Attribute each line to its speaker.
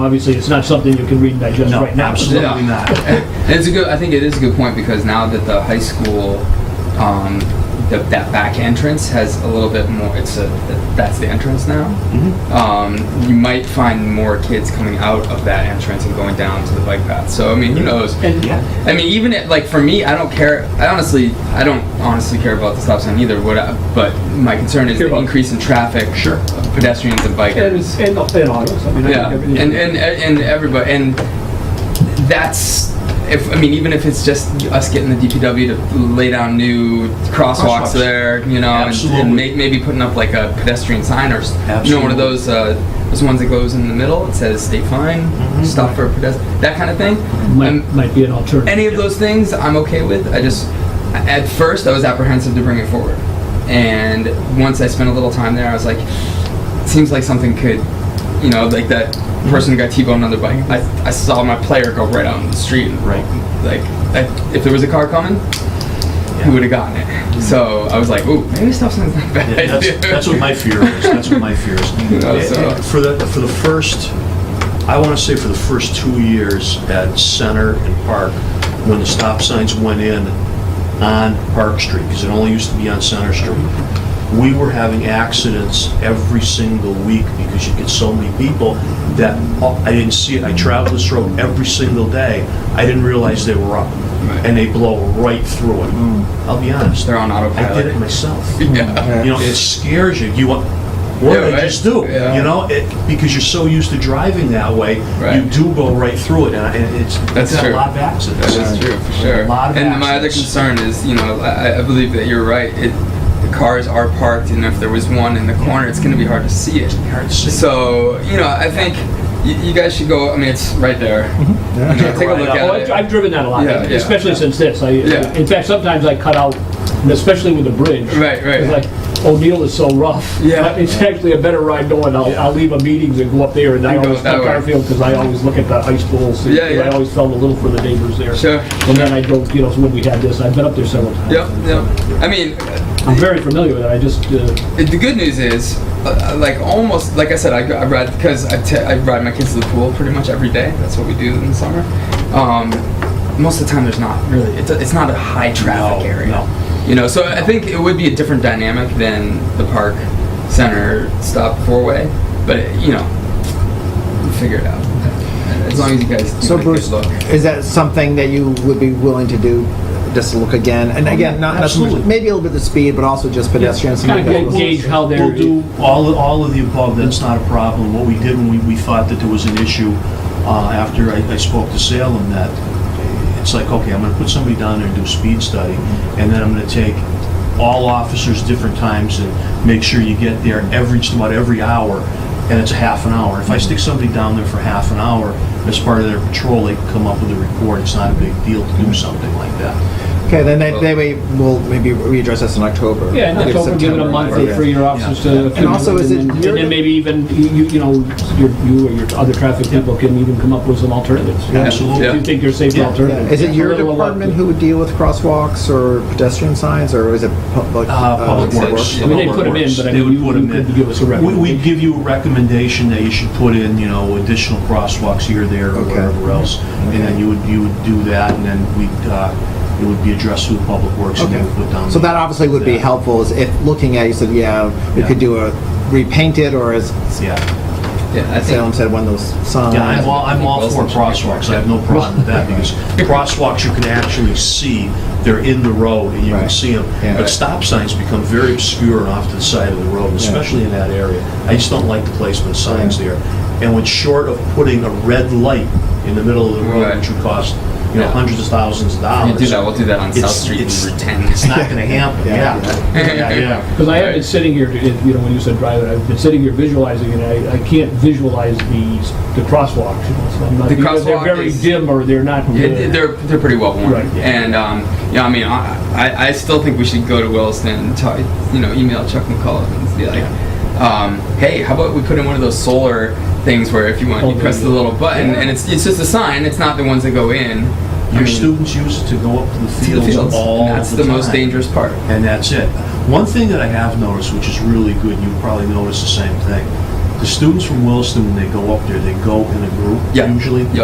Speaker 1: Obviously, it's not something you can read and digest
Speaker 2: No,
Speaker 1: right now.
Speaker 2: absolutely not.
Speaker 3: And it's a good. I think it is a good point because now that the high school, um, the, that back entrance has a little bit more. It's a that's the entrance now.
Speaker 1: Mm-hmm.
Speaker 3: Um, you might find more kids coming out of that entrance and going down to the bike path. So I mean, who knows?
Speaker 1: And
Speaker 2: Yeah.
Speaker 3: I mean, even at, like for me, I don't care. I honestly, I don't honestly care about the stop sign either. What, I, but my concern is
Speaker 1: Care
Speaker 3: the
Speaker 1: about-
Speaker 3: increase in traffic,
Speaker 2: Sure.
Speaker 3: of pedestrians and
Speaker 1: and,
Speaker 3: bikers.
Speaker 1: and, and autos. I mean, I
Speaker 3: Yeah,
Speaker 1: think
Speaker 3: and
Speaker 1: everything-
Speaker 3: and and everybody, and that's if I mean, even if it's just us getting the DPW to lay down new crosswalks,
Speaker 2: Crosswalks.
Speaker 3: there, you know, and,
Speaker 2: Absolutely.
Speaker 3: and may, maybe putting up like a pedestrian sign or s- you know one
Speaker 2: Absolutely.
Speaker 3: of those uh, those ones that goes in the middle. It says "Stay fine,"
Speaker 2: Mm-hmm.
Speaker 3: stop for pedestrian, that kind of thing. Um,
Speaker 1: might, might be an alternative.
Speaker 3: any of those things I'm okay with. I just at first I was apprehensive to bring it forward, and once I spent a little time there, I was like, seems like something could, you know, like that person who got T-boned on their bike. I, I saw my player go right out on the street. and
Speaker 2: Right.
Speaker 3: Like I, if there was a car coming, he would have gotten it. So I was like, ooh, maybe stop sign's not a bad.
Speaker 2: Yeah,
Speaker 3: idea.
Speaker 2: That's, that's what my fear is. That's what my fear is.
Speaker 3: know,
Speaker 2: And-
Speaker 3: so-
Speaker 2: and For the, for the first, I want to say for the first two years at Center and Park, when the stop signs went in on Park Street, because it only used to be on Center Street, we were having accidents every single week because you get so many people that, oh, I didn't see it. I traveled this road every single day. I didn't realize they were up.
Speaker 3: Right.
Speaker 2: And they blow right through it. I'll be honest.
Speaker 3: Mm. They're on
Speaker 2: I did it
Speaker 3: autopilot.
Speaker 2: myself.
Speaker 3: Yeah.
Speaker 2: You know, it scares you. You want, what
Speaker 3: Yeah,
Speaker 2: did I
Speaker 3: right.
Speaker 2: just do?
Speaker 3: Yeah.
Speaker 2: You know, it, because you're so used to driving that way, you
Speaker 3: Right.
Speaker 2: do go right through it, and I- and it's,
Speaker 3: That's
Speaker 2: it's a
Speaker 3: true.
Speaker 2: lot of accidents.
Speaker 3: That is true, for sure.
Speaker 2: A lot of
Speaker 3: And my other
Speaker 2: accidents.
Speaker 3: concern is, you know, I, I believe that you're right. It, the cars are parked, and if there was one in the corner, it's going to be hard to see it.
Speaker 2: Hard to see.
Speaker 3: So, you know, I think you, you guys should go. I mean, it's right there.
Speaker 2: Mm-hmm.
Speaker 3: You know, take a look
Speaker 2: Right
Speaker 1: Oh,
Speaker 3: at
Speaker 1: I've,
Speaker 3: it.
Speaker 1: I've driven that a lot,
Speaker 3: Yeah, yeah,
Speaker 1: especially
Speaker 3: yeah.
Speaker 1: since this. I,
Speaker 3: Yeah.
Speaker 1: In fact, sometimes I cut out, especially with the bridge.
Speaker 3: Right, right.
Speaker 1: It's like O'Neill is so rough.
Speaker 3: Yeah.
Speaker 1: But It's actually a better ride knowing I'll, I'll leave a meetings and go up there and I
Speaker 3: And go
Speaker 1: always
Speaker 3: that
Speaker 1: cut
Speaker 3: way.
Speaker 1: Garfield because I always look at the high school. see,
Speaker 3: Yeah, yeah.
Speaker 1: I always felt a little for the neighbors there.
Speaker 3: Sure.
Speaker 1: And then I drove, you know, when we had this, I've been up there several times.
Speaker 3: Yep, yep. I mean,
Speaker 1: I'm very familiar with it. I just, uh,
Speaker 3: it- the good news is, uh, like almost, like I said, I, go- I ride because I, t- I ride my kids to the pool pretty much every day. That's what we do in the summer. Um, most of the time, there's not really. It's, a, it's not a high traffic
Speaker 2: No,
Speaker 3: area.
Speaker 2: no.
Speaker 3: You know, so I think it would be a different dynamic than the park center stop four way, but you know, we'll figure it out. As long as you guys do
Speaker 4: So
Speaker 3: make it
Speaker 4: Bruce,
Speaker 3: look.
Speaker 4: is that something that you would be willing to do, just to look again? And again, not, not so much,
Speaker 2: Absolutely.
Speaker 4: maybe a little bit of speed, but also just pedestrians.
Speaker 1: kind of gauge how they're.
Speaker 2: We'll do all, of- all of the above, that's not a problem. What we did when we, we thought that there was an issue, uh, after I, I spoke to Salem, that it's like, okay, I'm gonna put somebody down there and do a speed study, and then I'm gonna take all officers different times and make sure you get there every, just about every hour, and it's a half an hour. If I stick somebody down there for half an hour, as part of their patrol, they can come up with a report, it's not a big deal to do something like that.
Speaker 4: Okay, then they, they may, we'll maybe readdress this in October.
Speaker 1: Yeah, in
Speaker 4: Give
Speaker 1: October, give it a
Speaker 4: September,
Speaker 1: month
Speaker 4: okay.
Speaker 1: or three, your officers to.
Speaker 4: And also, is it
Speaker 1: And then-
Speaker 4: your-
Speaker 1: and then maybe even, you, you know, your, you or your other traffic people can even come up with some alternatives.
Speaker 2: Absolutely.
Speaker 1: If you think there's safer
Speaker 2: Yeah.
Speaker 4: Yeah,
Speaker 1: alternatives.
Speaker 4: Is it your
Speaker 1: A little
Speaker 4: department
Speaker 1: elective.
Speaker 4: who would deal with crosswalks or pedestrian signs, or is it public?
Speaker 2: Uh, Public
Speaker 3: Public
Speaker 2: Works.
Speaker 3: Works.
Speaker 1: I mean, they
Speaker 2: Public
Speaker 1: put 'em in,
Speaker 2: Works.
Speaker 1: but I
Speaker 2: They
Speaker 1: mean,
Speaker 2: would
Speaker 1: you-
Speaker 2: put
Speaker 1: you
Speaker 2: 'em in.
Speaker 1: could give us a
Speaker 2: We-
Speaker 1: recommendation.
Speaker 2: We'd give you a recommendation that you should put in, you know, additional crosswalks here, there, or
Speaker 4: Okay.
Speaker 2: wherever else. And then you would, you would do that, and then we'd, uh, it would be addressed through Public Works, and they would put down.
Speaker 4: So that obviously would be
Speaker 2: Yeah.
Speaker 4: helpful, is if, looking at, you said, yeah, we
Speaker 2: Yeah.
Speaker 4: could do a, repaint it, or as
Speaker 2: Yeah,
Speaker 3: Yeah, I
Speaker 4: Salem
Speaker 3: think.
Speaker 4: said, one of those signs.
Speaker 2: yeah, I'm all, I'm all for crosswalks, I have no problem with that, because crosswalks you can actually see, they're in the road, and you can
Speaker 4: Right.
Speaker 2: see them.
Speaker 4: Yeah.
Speaker 2: But stop signs become very obscure and off to the side of the road, especially in that area. I just don't like the placement of signs there. And what's short of putting a red light in the middle of the road,
Speaker 3: Right.
Speaker 2: which would cost, you know,
Speaker 3: Yeah.
Speaker 2: hundreds of thousands of
Speaker 3: We'll
Speaker 2: dollars.
Speaker 3: do that. We'll do that on South
Speaker 2: It's-
Speaker 3: Street
Speaker 2: it's-
Speaker 3: in Route 10.
Speaker 2: It's not gonna happen,
Speaker 4: Yeah.
Speaker 2: yeah. Yeah, yeah.
Speaker 1: Because I have been sitting here, to- you know, when you said drive it, I've been sitting here visualizing and I, I can't visualize these, the crosswalks. you know, so I'm not-
Speaker 3: The
Speaker 1: because
Speaker 3: crosswalk
Speaker 1: They're very
Speaker 3: is-
Speaker 1: dim or they're not.
Speaker 3: Yeah,
Speaker 1: good.
Speaker 3: th- they're they're pretty well worn,
Speaker 1: Right, yeah.
Speaker 3: and um, you know, I mean, I, I I still think we should go to Williston and talk, you know, email Chuck McCullough and be like, um, hey, how about we put in one of those solar things where if you want,
Speaker 1: Oh,
Speaker 3: you press
Speaker 1: yeah.
Speaker 3: the little button, and it's it's just a sign. It's not the ones that go in. I
Speaker 2: Your
Speaker 3: mean,
Speaker 2: students use it to go up to
Speaker 3: to
Speaker 2: the
Speaker 3: the
Speaker 2: fields
Speaker 3: fields.
Speaker 2: all the time.
Speaker 3: and that's the, most dangerous part.
Speaker 2: and that's it. One thing that I have noticed, which is really good, you probably noticed the same thing, The students from Williston, when they go up there, they go in a group
Speaker 3: Yeah.
Speaker 2: usually.
Speaker 3: Yeah.